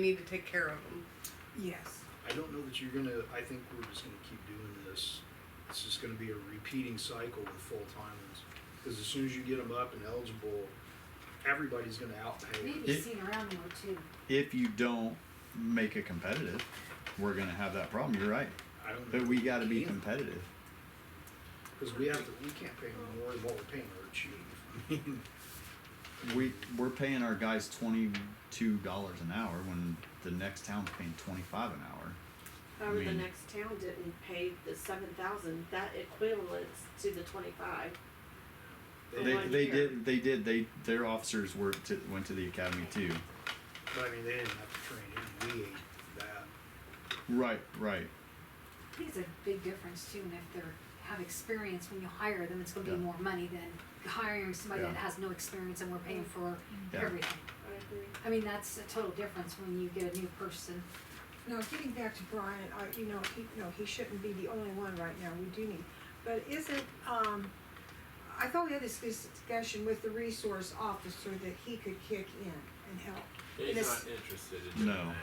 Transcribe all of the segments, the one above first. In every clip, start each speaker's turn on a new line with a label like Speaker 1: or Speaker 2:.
Speaker 1: We need to take care of them.
Speaker 2: Yes.
Speaker 3: I don't know that you're gonna, I think we're just gonna keep doing this. It's just gonna be a repeating cycle with full timers. Because as soon as you get them up and eligible, everybody's gonna outpay. them.
Speaker 4: Maybe
Speaker 5: It-
Speaker 4: seen around more too.
Speaker 5: if you don't make it competitive, we're gonna have that problem. You're right,
Speaker 3: I don't know.
Speaker 5: but we got to be competitive.
Speaker 3: Because we have to, we can't pay them more than what we're paying our chief. I mean,
Speaker 5: We we're paying our guys twenty two dollars an hour when the next town's paying twenty five an hour.
Speaker 6: However, the
Speaker 5: mean-
Speaker 6: next town didn't pay the seven thousand, that equivalents to the twenty-five. For
Speaker 5: They,
Speaker 6: one
Speaker 5: they
Speaker 6: year.
Speaker 5: did they did they their officers were to, went to the academy too.
Speaker 3: But I mean, they didn't have to train him, we ate that.
Speaker 5: Right, right.
Speaker 4: I think it's a big difference too, and if they're, have experience when you hire them, it's gonna be
Speaker 5: Yeah.
Speaker 4: more money than hiring somebody that
Speaker 5: Yeah.
Speaker 4: has no experience and we're paying for
Speaker 5: Yeah.
Speaker 4: everything.
Speaker 6: I agree.
Speaker 4: I mean, that's a total difference when you get a new person.
Speaker 2: Now, getting back to Brian, I, you know, he, no, he shouldn't be the only one right now, we do need, but isn't, um, I thought we had this discussion with the resource officer that he could kick in and help.
Speaker 7: He's
Speaker 2: This-
Speaker 7: not interested in doing
Speaker 5: No.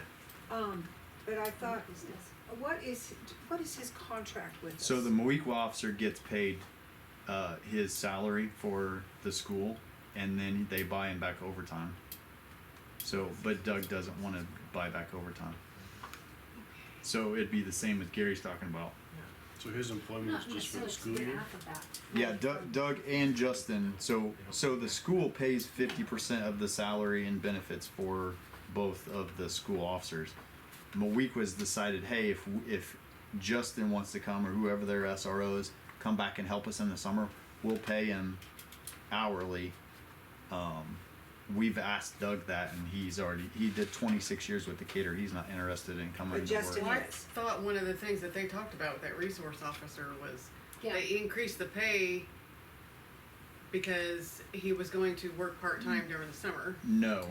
Speaker 7: that.
Speaker 2: Um, but I thought,
Speaker 4: Business.
Speaker 2: what is, what is his contract with us?
Speaker 5: So the Moequa officer gets paid uh, his salary for the school, and then they buy him back overtime. So, but Doug doesn't want to buy back overtime. So it'd be the same as Gary's talking about.
Speaker 8: So his employment is
Speaker 4: Not
Speaker 8: just for the
Speaker 4: necessarily
Speaker 8: school
Speaker 4: to get
Speaker 8: year?
Speaker 4: half of that.
Speaker 5: Yeah, Doug, Doug and Justin. So, so the school pays fifty percent of the salary and benefits for both of the school officers. Mawikwa's decided, hey, if if Justin wants to come or whoever their SROs come back and help us in the summer, we'll pay him hourly. Um, we've asked Doug that, and he's already he did twenty six years with Decatur. He's not interested in coming.
Speaker 2: But
Speaker 5: to work.
Speaker 2: Justin
Speaker 1: Well, I
Speaker 2: Yes.
Speaker 1: thought one of the things that they talked about with that resource officer was
Speaker 4: Yeah,
Speaker 1: they increased the pay because he was going to work part time during the summer.
Speaker 5: No,
Speaker 7: No.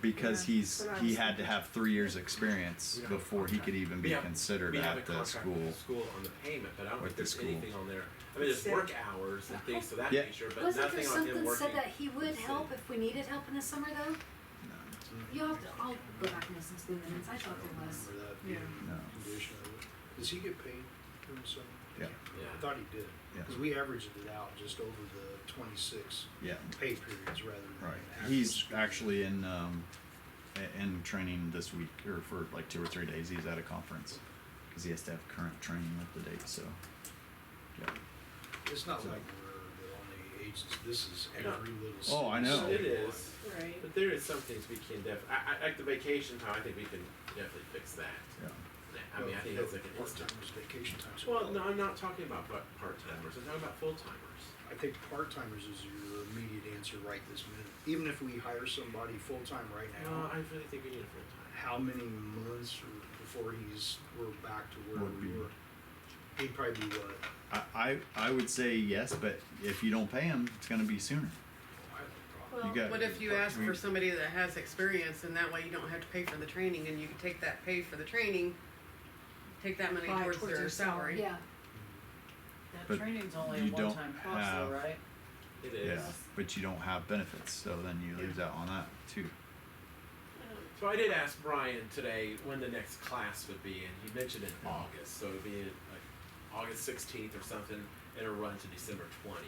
Speaker 5: because
Speaker 2: Yeah,
Speaker 5: he's
Speaker 2: that's what I
Speaker 5: he
Speaker 2: was
Speaker 5: had to have three years experience
Speaker 7: We don't have a
Speaker 5: before he
Speaker 7: contract.
Speaker 5: could even be
Speaker 7: We have-
Speaker 5: considered
Speaker 7: we have
Speaker 5: at the
Speaker 7: a contract with
Speaker 5: school.
Speaker 7: the School on the payment, but I don't
Speaker 5: With the
Speaker 7: think there's
Speaker 5: school.
Speaker 7: anything on there. I mean, there's
Speaker 2: Said-
Speaker 7: work hours and things of that
Speaker 5: Yeah.
Speaker 7: nature, but
Speaker 4: wasn't there
Speaker 7: nothing on him
Speaker 4: something
Speaker 7: working.
Speaker 4: said that he would help if we needed help in the summer though? You have to, I'll go back and listen to the minutes, I thought there was.
Speaker 3: Remember that being
Speaker 5: Yeah.
Speaker 3: a condition of it. Does he get paid during summer? I
Speaker 5: Yeah.
Speaker 3: can't remember.
Speaker 7: Yeah.
Speaker 3: I thought he did.
Speaker 5: Yeah.
Speaker 3: Because we averaged it out just over the twenty-six
Speaker 5: Yeah,
Speaker 3: pay periods rather than.
Speaker 5: right.
Speaker 3: actual
Speaker 5: He's
Speaker 3: school.
Speaker 5: actually in um, a- in training this week or for like two or three days. He's at a conference because he has to have current training up to date. So, yeah.
Speaker 3: It's not like we're the only agency, this is every little.
Speaker 5: Oh, I
Speaker 3: city
Speaker 5: know.
Speaker 3: statewide.
Speaker 7: It is,
Speaker 6: Right.
Speaker 7: but there is some things we can def, I, I, like the vacation time, I think we can definitely fix that.
Speaker 5: yeah.
Speaker 7: I mean, I think that's like an instant.
Speaker 3: Part-timers, vacation time.
Speaker 7: Well, no, I'm not talking about part timers, I'm talking about full timers.
Speaker 3: I think part-timers is your immediate answer right this minute. Even if we hire somebody full-time right
Speaker 7: No,
Speaker 3: now,
Speaker 7: I really think we need a full time.
Speaker 3: how many months or- before he's, we're back to where
Speaker 5: Would
Speaker 3: we
Speaker 5: be-
Speaker 3: were? He'd probably be what,
Speaker 5: I, I I would say yes, but if you don't pay him, it's gonna be sooner.
Speaker 3: I
Speaker 6: Well,
Speaker 5: You got.
Speaker 1: What if you
Speaker 5: I
Speaker 1: ask for
Speaker 5: mean,
Speaker 1: somebody that has experience and that way you don't have to pay for the training and you can take that pay for the training, take that money
Speaker 2: Buy
Speaker 1: towards
Speaker 2: towards
Speaker 1: their
Speaker 2: their salary.
Speaker 1: salary?
Speaker 4: Yeah,
Speaker 5: But
Speaker 9: That training's only
Speaker 5: you
Speaker 9: a
Speaker 5: don't
Speaker 9: one-time cost
Speaker 5: have-
Speaker 9: though, right?
Speaker 7: It
Speaker 5: Yeah,
Speaker 7: is.
Speaker 5: but you don't have benefits, so then you lose out on that too.
Speaker 7: So I did ask Brian today when the next class would be, and he mentioned in August, so it'd be like August 16th or something, and it'll run to December 20th.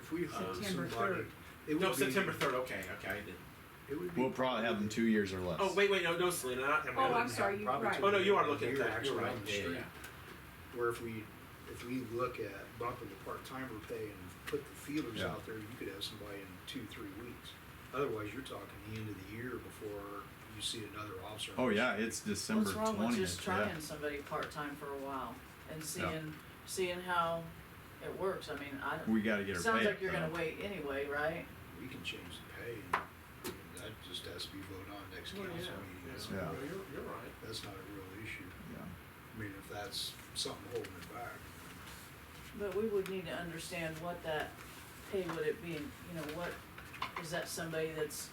Speaker 3: If we hired
Speaker 2: September
Speaker 3: somebody,
Speaker 2: third.
Speaker 3: it would
Speaker 7: no,
Speaker 3: be-
Speaker 7: September 3rd. Okay, okay, I didn't.
Speaker 3: It would be.
Speaker 5: We'll probably have them two years or less.
Speaker 7: Oh wait, wait, no, no, Selena.
Speaker 3: I
Speaker 7: Not,
Speaker 3: mean,
Speaker 2: Oh,
Speaker 3: it
Speaker 2: I'm
Speaker 3: wouldn't
Speaker 2: sorry,
Speaker 3: have
Speaker 2: you're
Speaker 3: probably
Speaker 2: right.
Speaker 3: till
Speaker 7: oh no, you are
Speaker 3: the
Speaker 7: looking at
Speaker 3: year
Speaker 7: that. You're
Speaker 3: actually
Speaker 7: right.
Speaker 3: on the
Speaker 7: Yeah, yeah,
Speaker 3: street.
Speaker 7: yeah.
Speaker 3: Where if we, if we look at bumping the part-timer pay and put the feelers
Speaker 5: Yeah.
Speaker 3: out there, you could have somebody in two, three weeks. Otherwise, you're talking the end of the year before you see another officer.
Speaker 5: Oh yeah, it's December
Speaker 9: What's wrong with just
Speaker 5: twentieth.
Speaker 9: trying somebody part-time for a while and seeing seeing how it works? I mean, I don't,
Speaker 5: We got to get her
Speaker 9: sounds
Speaker 5: paid,
Speaker 9: like you're
Speaker 5: though.
Speaker 9: gonna wait anyway, right?
Speaker 3: We can change the pay and that just has to be voted on next
Speaker 7: Well,
Speaker 3: council
Speaker 7: yeah,
Speaker 3: meeting. That's-
Speaker 5: Yeah.
Speaker 7: yeah. Well, You're, you're right.
Speaker 3: That's not a real issue.
Speaker 5: Yeah.
Speaker 3: I mean, if that's something holding it back.
Speaker 9: But we would need to understand what that pay would it be, you know, what, is that somebody that's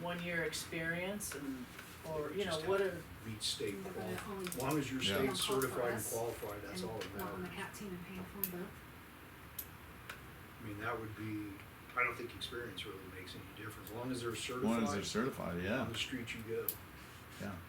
Speaker 9: one-year experience and, or, you know,
Speaker 3: Just
Speaker 9: what
Speaker 3: have
Speaker 9: are,
Speaker 3: to Meet state
Speaker 4: They're
Speaker 3: qual,
Speaker 4: gonna only-
Speaker 3: as long as you're
Speaker 5: Yeah.
Speaker 3: state
Speaker 4: Don't call for
Speaker 3: certified and
Speaker 4: us.
Speaker 3: qualified, that's
Speaker 4: and
Speaker 3: all that
Speaker 4: not on the
Speaker 3: matters.
Speaker 4: cat team and paying for them both.
Speaker 3: I mean, that would be, I don't think experience really makes any difference, as long as they're
Speaker 5: One is
Speaker 3: certified
Speaker 5: they're certified,
Speaker 3: on
Speaker 5: yeah.
Speaker 3: the street you go.
Speaker 5: yeah.